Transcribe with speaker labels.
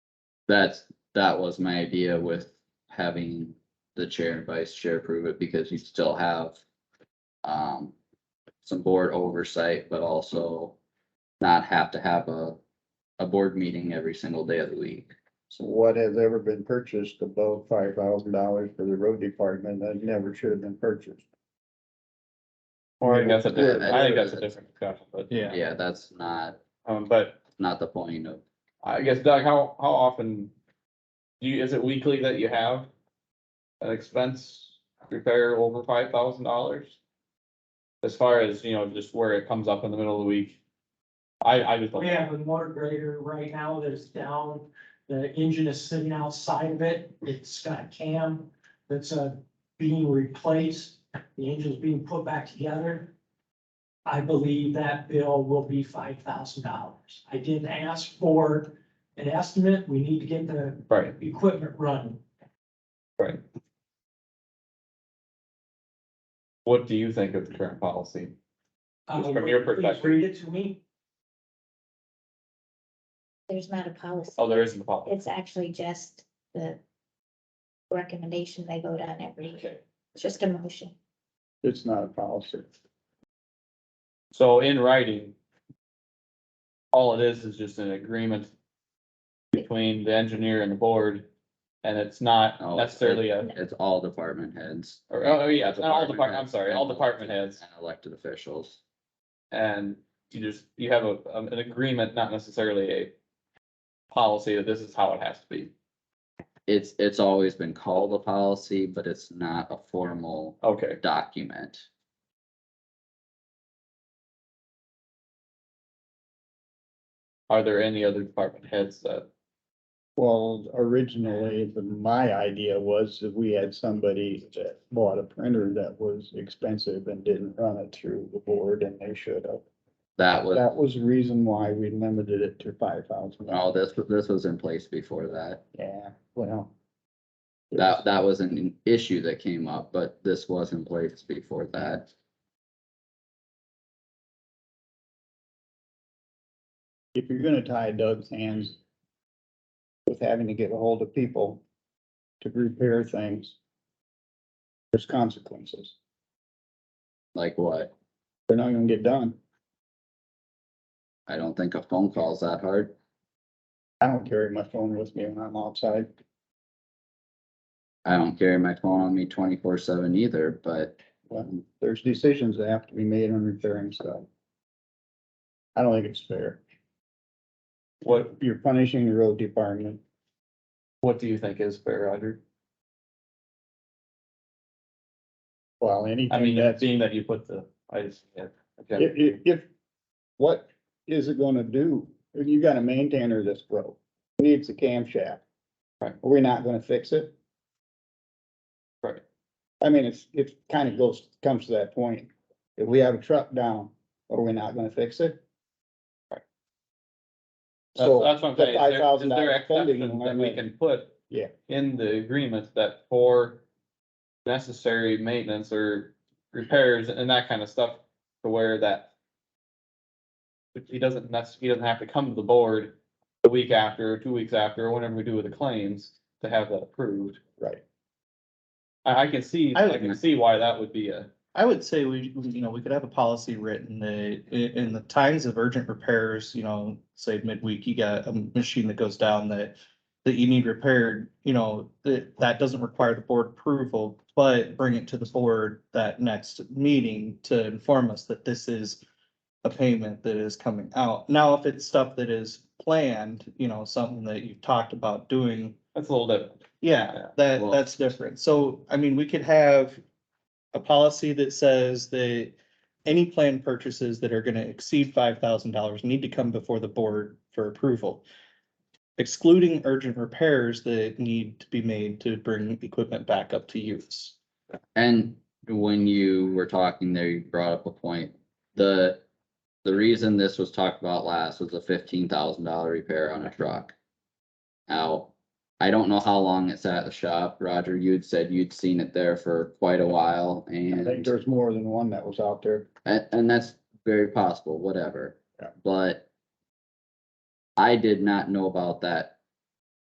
Speaker 1: that's, that was my idea with having the chair and vice chair approve it because you still have um, some board oversight, but also not have to have a, a board meeting every single day of the week.
Speaker 2: So what has ever been purchased above five thousand dollars for the road department that never should have been purchased?
Speaker 3: I think that's a different, I think
Speaker 1: Yeah.
Speaker 3: that's a different discussion, but,
Speaker 4: Yeah.
Speaker 1: Yeah, that's not,
Speaker 3: um, but
Speaker 1: not the point of,
Speaker 3: I guess Doug, how, how often? Do you, is it weekly that you have? An expense repair over five thousand dollars? As far as, you know, just where it comes up in the middle of the week. I, I just. don't-
Speaker 5: We have a motor grader right now that is down, the engine is sitting outside of it, it's got a cam that's uh being replaced, the engine's being put back together. I believe that bill will be five thousand dollars. I didn't ask for an estimate, we need to get the
Speaker 3: Right,
Speaker 5: equipment running.
Speaker 3: what do you think of the current policy?
Speaker 5: Uh,
Speaker 3: Just from your
Speaker 5: would you please
Speaker 3: perspective.
Speaker 5: Read it to me.
Speaker 6: There's not a policy.
Speaker 3: Oh, there isn't a policy.
Speaker 6: It's actually just the recommendation they vote on every year. It's just a motion.
Speaker 2: It's not a policy.
Speaker 3: So in writing. All it is is just an agreement. Between the engineer and the board. And it's not
Speaker 1: Oh,
Speaker 3: necessarily a,
Speaker 1: it's all department heads.
Speaker 3: or, oh, yeah, it's not all
Speaker 1: Department
Speaker 3: department, I'm sorry, all department heads.
Speaker 1: And elected officials.
Speaker 3: And you just, you have a, um, an agreement, not necessarily a. Policy that this is how it has to be.
Speaker 1: It's, it's always been called a policy, but it's not a formal
Speaker 3: Okay.
Speaker 1: document.
Speaker 3: Are there any other department heads that,
Speaker 2: Well, originally, the- my idea was that we had somebody that bought a printer that was expensive and didn't run it through the board and they should have.
Speaker 1: That was,
Speaker 2: That was the reason why we limited it to five thousand.
Speaker 1: no, this, this was in place before that.
Speaker 2: Yeah, well.
Speaker 1: That, that was an issue that came up, but this was in place before that.
Speaker 2: If you're gonna tie Doug's hands with having to get a hold of people to repair things, there's consequences.
Speaker 1: Like what?
Speaker 2: They're not gonna get done.
Speaker 1: I don't think a phone call's that hard.
Speaker 2: I don't carry my phone with me when I'm outside.
Speaker 1: I don't carry my phone on me twenty-four seven either, but
Speaker 2: Well, there's decisions that have to be made on repairing stuff. I don't think it's fair.
Speaker 3: what,
Speaker 2: You're punishing the road department.
Speaker 3: what do you think is fair, Roger?
Speaker 2: Well,
Speaker 3: I
Speaker 2: anything
Speaker 3: mean,
Speaker 2: that's, if,
Speaker 3: being that you put the, I just, yeah. okay.
Speaker 2: if, if, what is it gonna do? You got a maintainer that's broke, needs a camshaft.
Speaker 3: Right.
Speaker 2: Are we not gonna fix it?
Speaker 3: Right.
Speaker 2: I mean, it's, it kind of goes, comes to that point. If we have a truck down, are we not gonna fix it?
Speaker 3: Right. That's,
Speaker 2: So.
Speaker 3: that's what I'm
Speaker 2: the
Speaker 3: saying. Is there- Is
Speaker 2: $5,000
Speaker 3: there
Speaker 2: spending
Speaker 3: exceptions that
Speaker 2: limit-
Speaker 3: we can put?
Speaker 2: Yeah.
Speaker 3: In the agreement that for necessary maintenance or repairs and that kind of stuff to where that. He doesn't necess, he doesn't have to come to the board the week after, or two weeks after, or whenever we do with the claims to have that approved.
Speaker 2: Right.
Speaker 3: I, I can see,
Speaker 4: I
Speaker 3: I
Speaker 4: would-
Speaker 3: can see why that would be a,
Speaker 4: I would say we, we- you know, we could have a policy written that i- in the times of urgent repairs, you know, say midweek, you got a machine that goes down that. That you need repaired, you know, that, that doesn't require the board approval, but bring it to the board that next meeting to inform us that this is. A payment that is coming out. Now, if it's stuff that is planned, you know, something that you've talked about doing.
Speaker 3: that's a little different. Yeah,
Speaker 4: Yeah, that,
Speaker 1: well-
Speaker 4: that's different. So, I mean, we could have a policy that says that any planned purchases that are gonna exceed five thousand dollars need to come before the board for approval. Excluding urgent repairs that need to be made to bring equipment back up to use.
Speaker 1: And when you were talking there, you brought up a point. The, the reason this was talked about last was a fifteen thousand dollar repair on a truck. Now, I don't know how long it sat at the shop. Roger, you'd said you'd seen it there for quite a while
Speaker 2: I think
Speaker 1: and,
Speaker 2: there's more than one that was out there.
Speaker 1: and, and that's very possible, whatever.
Speaker 2: Yeah.
Speaker 1: But I did not know about that